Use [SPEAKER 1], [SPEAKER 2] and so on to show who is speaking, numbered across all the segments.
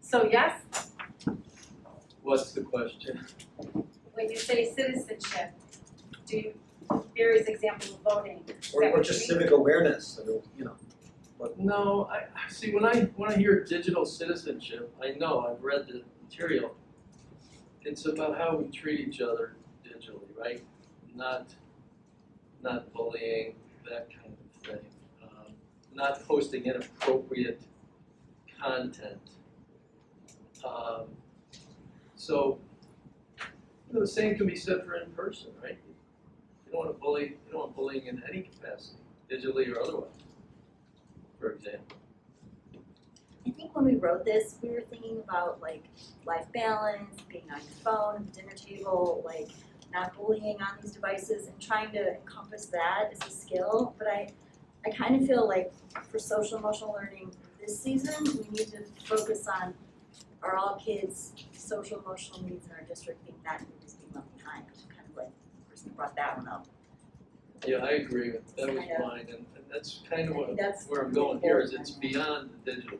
[SPEAKER 1] So yes,
[SPEAKER 2] What's the question?
[SPEAKER 1] when you say citizenship, do you, there is example of voting.
[SPEAKER 3] Or, or just civic awareness, I mean, you know,
[SPEAKER 2] No, I, I- see, when I, when I hear digital citizenship, I know, I've read the material. It's about how we treat each other digitally, right? Not, not bullying, that kind of thing. Um, Not posting inappropriate content. Um, So, you know, the same can be said for in person, right? You don't wanna bully, you don't want bullying in any capacity, digitally or otherwise for example.
[SPEAKER 4] I think when we wrote this, we were thinking about like life balance, being on your phone, at the dinner table, like not bullying on these devices and trying to encompass that as a skill. But I, I kind of feel like for social emotional learning this season, we need to focus on are all kids' social emotional needs in our district being that group is being left behind, which is kind of like the person who brought that one up.
[SPEAKER 2] Yeah, I agree with, that was
[SPEAKER 4] Kind of.
[SPEAKER 2] mine, and, and that's kind
[SPEAKER 4] I
[SPEAKER 2] of
[SPEAKER 4] think
[SPEAKER 2] what,
[SPEAKER 4] that's
[SPEAKER 2] where I'm going here, is it's beyond the digital.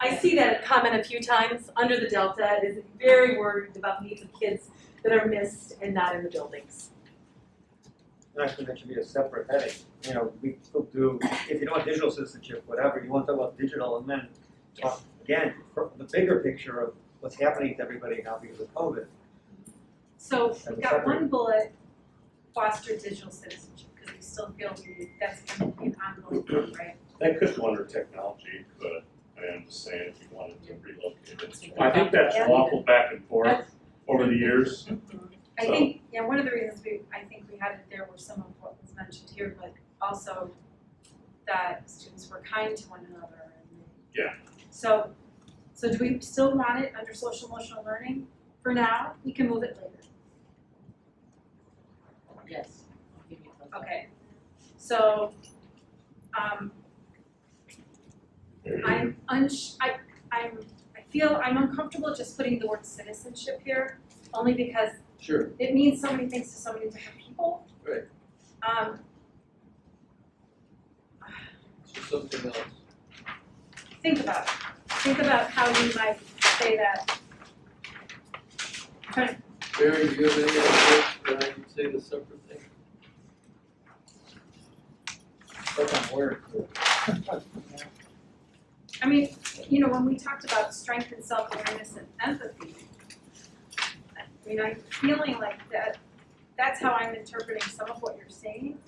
[SPEAKER 5] I see that comment a few times under the Delta. It is very worried about needs of kids that are missed and not in the buildings.
[SPEAKER 3] and actually that should be a separate heading, you know, we still do, if you don't want digital citizenship, whatever, you want to talk about digital and then talk again, for the bigger picture of what's happening to everybody now because of COVID.
[SPEAKER 1] So
[SPEAKER 3] Have
[SPEAKER 1] we've
[SPEAKER 3] a
[SPEAKER 1] got
[SPEAKER 3] separate-
[SPEAKER 1] one bullet, foster digital citizenship, because we still feel we- that's gonna be an ongoing thing, right?
[SPEAKER 6] That could go under technology, but I am just saying if you wanted to relocate it.
[SPEAKER 1] Yeah.
[SPEAKER 6] I think that's waffled back and forth
[SPEAKER 1] That's-
[SPEAKER 6] over the years.
[SPEAKER 1] I
[SPEAKER 6] So-
[SPEAKER 1] think, yeah, one of the reasons we, I think we had it there were some of what was mentioned here, but also that students were kind to one another and.
[SPEAKER 6] Yeah.
[SPEAKER 1] So, so do we still want it under social emotional learning for now? We can move it later,
[SPEAKER 7] Yes.
[SPEAKER 1] okay? So, um, I'm unsh, I, I'm, I feel I'm uncomfortable just putting the word citizenship here, only because
[SPEAKER 2] Sure,
[SPEAKER 1] it means so many things to so many different people.
[SPEAKER 2] Right.
[SPEAKER 1] Um,
[SPEAKER 2] so something else.
[SPEAKER 1] think about it. Think about how you might say that.
[SPEAKER 2] Barry, do you have any ideas that I can say the separate thing?
[SPEAKER 3] That's on word.
[SPEAKER 1] I mean, you know, when we talked about strength and self-awareness and empathy, I mean, I'm feeling like that, that's how I'm interpreting some of what you're saying.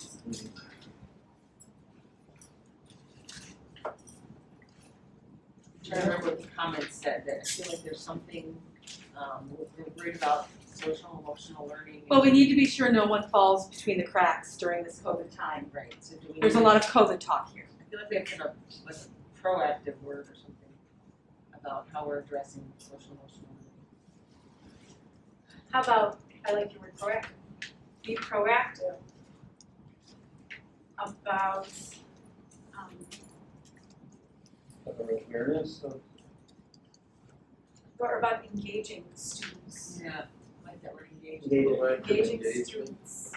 [SPEAKER 7] I remember what the comments said, that I feel like there's something, um, we're worried about social emotional learning.
[SPEAKER 5] Well, we need to be sure no one falls between the cracks during this COVID time.
[SPEAKER 7] Right, so do we?
[SPEAKER 5] There's a lot of COVID talk here.
[SPEAKER 7] I feel like we have to have a, like a proactive word or something about how we're addressing social emotional learning.
[SPEAKER 1] How about, I like your word proactive, be proactive about, um,
[SPEAKER 3] Of awareness of
[SPEAKER 1] or about engaging students,
[SPEAKER 7] Yeah, like that we're engaged.
[SPEAKER 3] data.
[SPEAKER 2] Proactive
[SPEAKER 1] engaging
[SPEAKER 2] engagement.
[SPEAKER 1] students.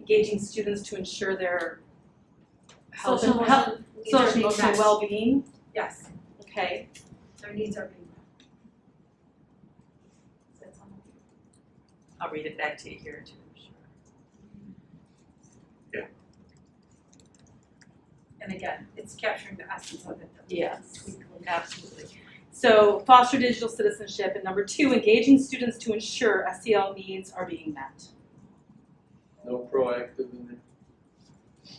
[SPEAKER 5] Engaging students to ensure their health
[SPEAKER 1] Social
[SPEAKER 5] and health,
[SPEAKER 1] emotional needs are
[SPEAKER 5] social
[SPEAKER 1] being
[SPEAKER 5] emotional
[SPEAKER 1] met.
[SPEAKER 5] well-being,
[SPEAKER 1] Yes.
[SPEAKER 5] okay?
[SPEAKER 1] their needs are being met. That's all.
[SPEAKER 5] I'll read it back to you here too, I'm sure.
[SPEAKER 1] And again, it's capturing the essence of it. though.
[SPEAKER 5] Yes, absolutely. So foster digital citizenship, and number two, engaging students to ensure SEL needs are being met.
[SPEAKER 2] No proactive in there.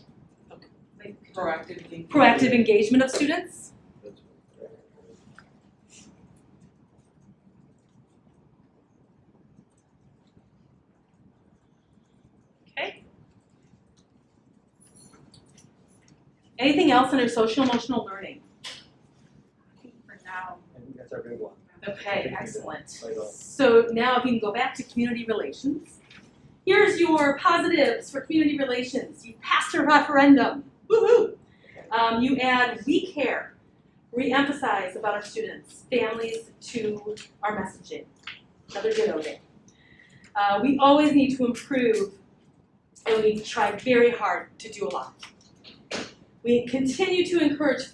[SPEAKER 1] Like,
[SPEAKER 7] Proactive engagement.
[SPEAKER 5] Proactive engagement of students,
[SPEAKER 2] That's what-
[SPEAKER 5] okay? Anything else under social emotional learning?
[SPEAKER 1] I think for now,
[SPEAKER 3] I think that's our big one,
[SPEAKER 5] Okay, excellent.
[SPEAKER 3] right off.
[SPEAKER 5] So now if you can go back to community relations. Here's your positives for community relations. You passed a referendum. Woo-hoo! Um, you add we care, re-emphasize about our students, families to our messaging. Another ditto there. Uh, we always need to improve and we try very hard to do a lot. We continue to encourage feedback